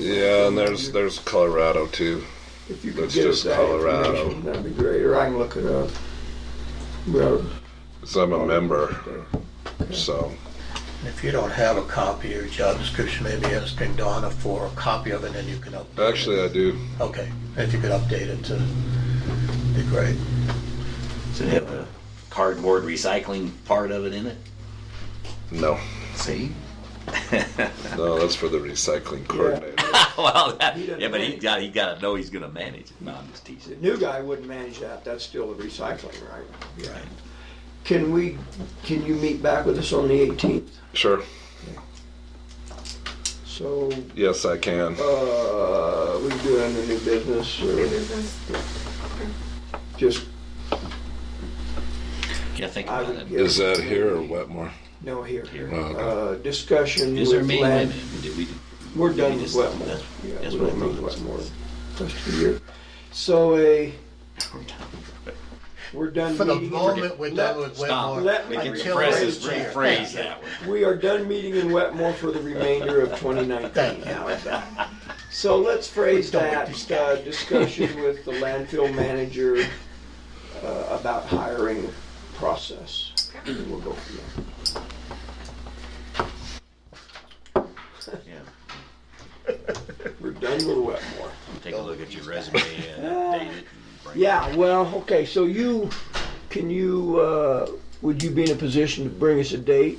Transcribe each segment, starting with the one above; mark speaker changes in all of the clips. Speaker 1: Yeah, and there's there's Colorado too.
Speaker 2: If you could
Speaker 1: That's
Speaker 2: get us
Speaker 1: just
Speaker 2: that
Speaker 1: Colorado.
Speaker 2: information, that'd be great, or I can look it up. Well,
Speaker 1: 'cause I'm a member, so
Speaker 3: If you don't have a copy of your job description, maybe asking Donna for a copy of it, and you can update it.
Speaker 1: actually I do.
Speaker 3: Okay, if you could update it to, be great.
Speaker 4: Does it have a cardboard recycling part of it in it?
Speaker 1: No,
Speaker 4: See?
Speaker 1: no, that's for the recycling coordinator.
Speaker 4: well, that,
Speaker 2: He doesn't
Speaker 4: yeah, but he
Speaker 2: manage.
Speaker 4: got he got to know he's going to manage it. No, I'm just teasing.
Speaker 2: The new guy wouldn't manage that, that's still the recycling, right?
Speaker 4: Right.
Speaker 2: Can we, can you meet back with us on the eighteenth?
Speaker 1: Sure.
Speaker 2: So,
Speaker 1: Yes, I can.
Speaker 2: uh, we do it under new business or just,
Speaker 4: Yeah, think
Speaker 2: I
Speaker 4: about
Speaker 2: would
Speaker 4: it.
Speaker 2: get.
Speaker 1: Is that here or Wetmore?
Speaker 2: No, here.
Speaker 4: Here.
Speaker 1: Oh, okay.
Speaker 2: Uh, discussion
Speaker 4: Is there a
Speaker 2: with
Speaker 4: meeting? Wait a
Speaker 2: land.
Speaker 4: minute, did we-
Speaker 2: We're
Speaker 4: did
Speaker 2: done
Speaker 4: we
Speaker 2: with
Speaker 4: just-
Speaker 2: Wetmore.
Speaker 4: that's-
Speaker 2: Yeah,
Speaker 4: That's
Speaker 2: we
Speaker 4: what I
Speaker 2: don't need
Speaker 4: thought. that's-
Speaker 2: Wetmore. That's for you. So a,
Speaker 4: we're done.
Speaker 2: we're done
Speaker 3: For the
Speaker 2: meeting. in-
Speaker 3: moment, we're done with
Speaker 4: Stop.
Speaker 3: Wetmore.
Speaker 2: Let
Speaker 4: We
Speaker 2: me
Speaker 4: can
Speaker 2: rephrase
Speaker 4: press his
Speaker 2: that.
Speaker 4: rephrase that one.
Speaker 2: We are done meeting in Wetmore for the remainder of 2019.
Speaker 3: Thank
Speaker 2: How is that? So let's phrase
Speaker 3: Don't make
Speaker 2: that
Speaker 3: this
Speaker 2: uh, discussion with the landfill manager uh, about hiring process. And We'll go from there.
Speaker 4: Yeah.
Speaker 2: We're done with Wetmore.
Speaker 4: Take a look at your resume and update it. and bring it
Speaker 2: Yeah, well, okay, so you, can you, uh, would you be in a position to bring us a date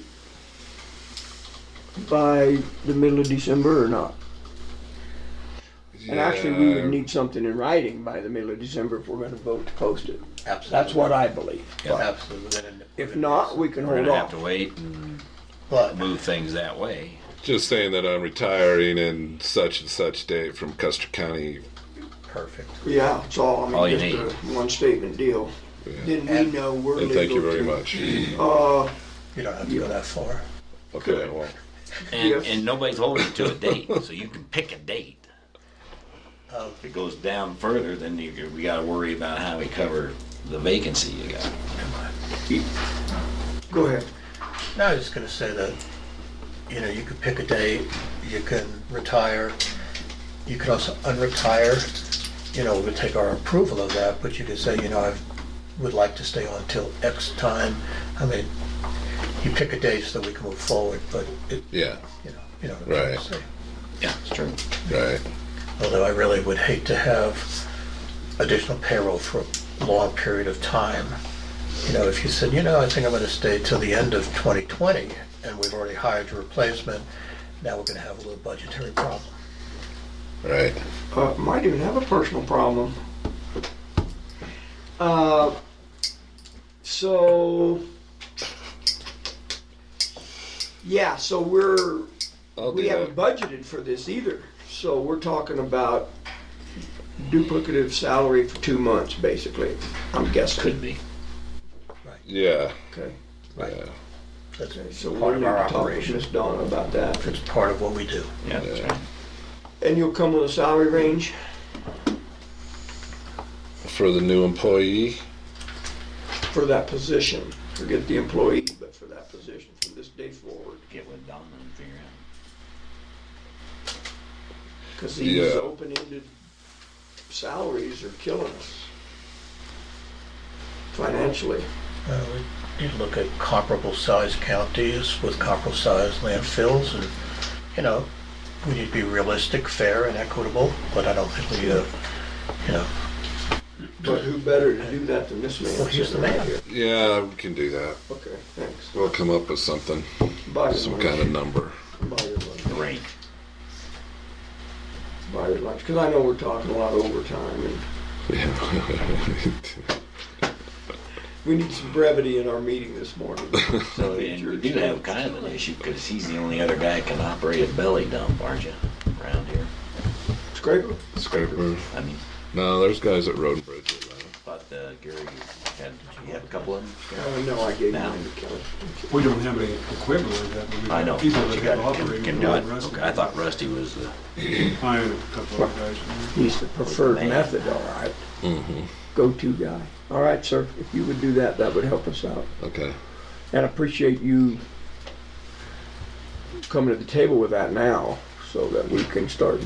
Speaker 2: by the middle of December or not? And actually, we would
Speaker 1: Yeah.
Speaker 2: need something in writing by the middle of December if we're gonna vote to post it.
Speaker 3: Absolutely.
Speaker 2: That's what I believe.
Speaker 3: Yeah, Absolutely.
Speaker 2: If not, we can
Speaker 4: We're
Speaker 2: hold
Speaker 4: gonna have
Speaker 2: off.
Speaker 4: to wait and
Speaker 3: But
Speaker 4: move things that way.
Speaker 1: Just saying that I'm retiring in such and such date from Custer County.
Speaker 3: Perfect.
Speaker 2: Yeah, it's all,
Speaker 4: All
Speaker 2: I
Speaker 4: you
Speaker 2: mean,
Speaker 4: need.
Speaker 2: just a one statement deal. Then we
Speaker 3: And-
Speaker 2: know we're
Speaker 1: And
Speaker 2: legal.
Speaker 1: thank you very
Speaker 2: to-
Speaker 1: much.
Speaker 2: Uh,
Speaker 3: You don't have to go that far.
Speaker 1: Okay, I won't.
Speaker 4: And,
Speaker 2: Yes.
Speaker 4: and nobody's holding you to a date, so you can pick a date.
Speaker 3: Uh,
Speaker 4: Um, If it goes down further, then you, we got to worry about how we cover the vacancy you got.
Speaker 2: go ahead.
Speaker 3: No, I was just gonna say that, you know, you could pick a date, you can retire, you could also unretire. You know, we take our approval of that, but you could say, you know, I would like to stay on till X time. I mean, you pick a date so that we can move forward, but it,
Speaker 1: Yeah,
Speaker 3: you know, you know what I'm trying
Speaker 1: Right.
Speaker 3: to say.
Speaker 4: Yeah, it's true.
Speaker 1: right.
Speaker 3: Although I really would hate to have additional payroll for a long period of time. You know, if you said, you know, I think I'm gonna stay till the end of 2020, and we've already hired a replacement, now we're gonna have a little budgetary problem.
Speaker 1: Right.
Speaker 2: uh, might even have a personal problem. Uh, so, yeah, so we're,
Speaker 1: I'll
Speaker 2: we
Speaker 1: do
Speaker 2: haven't
Speaker 1: that.
Speaker 2: budgeted for this either. So we're talking about duplicative salary for two months, basically, I'm guessing.
Speaker 4: Could be.
Speaker 1: Yeah,
Speaker 2: Okay,
Speaker 1: yeah.
Speaker 3: That's
Speaker 2: okay, so
Speaker 3: part
Speaker 2: we'll
Speaker 3: of
Speaker 2: need
Speaker 3: our
Speaker 2: to talk with
Speaker 3: operation.
Speaker 2: Ms. Donna about that.
Speaker 3: It's part of what we do.
Speaker 4: Yeah, that's right.
Speaker 2: And you'll come with a salary range?
Speaker 1: For the new employee,
Speaker 2: for that position, forget the employee, but for that position from this day forward,
Speaker 4: Get with Donna and figure out.
Speaker 2: because these
Speaker 1: Yeah.
Speaker 2: open-ended salaries are killing us financially.
Speaker 3: Uh, we need to look at comparable sized counties with comparable sized landfills, and, you know, we need to be realistic, fair, and equitable, but I don't think we, uh, you know,
Speaker 2: But who better to do that than this man?
Speaker 3: Well, he's the
Speaker 2: sitting right
Speaker 3: man.
Speaker 2: here?
Speaker 1: yeah, we can do that.
Speaker 2: Okay, thanks.
Speaker 1: We'll come up with something,
Speaker 2: Buy your
Speaker 1: some
Speaker 2: lunch.
Speaker 1: kind of number.
Speaker 2: Buy your lunch.
Speaker 4: Rank.
Speaker 2: Buy your lunch, because I know we're talking a lot of overtime, and
Speaker 1: Yeah.
Speaker 2: we need some brevity in our meeting this morning.
Speaker 4: So, and you do have kind of an issue because he's the only other guy that can operate a belly dump, aren't you? Around here.
Speaker 2: Scraper?
Speaker 1: Scraper.
Speaker 4: I mean,
Speaker 1: No, there's guys at Road and Bridge. that run it.
Speaker 4: but uh, Gary, you had, you have a couple of them?
Speaker 2: Oh, no, I gave
Speaker 4: No.
Speaker 2: mine to Kelly.
Speaker 5: We don't have any equipment like that, but we
Speaker 4: I know.
Speaker 5: have people
Speaker 4: but
Speaker 5: that
Speaker 4: you
Speaker 5: have
Speaker 4: got- can-
Speaker 5: operating.
Speaker 4: Can do it. Okay, I thought Rusty was the.
Speaker 5: I have a couple of guys.
Speaker 2: He's the preferred
Speaker 4: Man.
Speaker 2: method, all right. Go-to guy. All right, sir, if you would do that, that would help us out.
Speaker 1: Okay.
Speaker 2: And I appreciate you coming to the table with that now so that we can start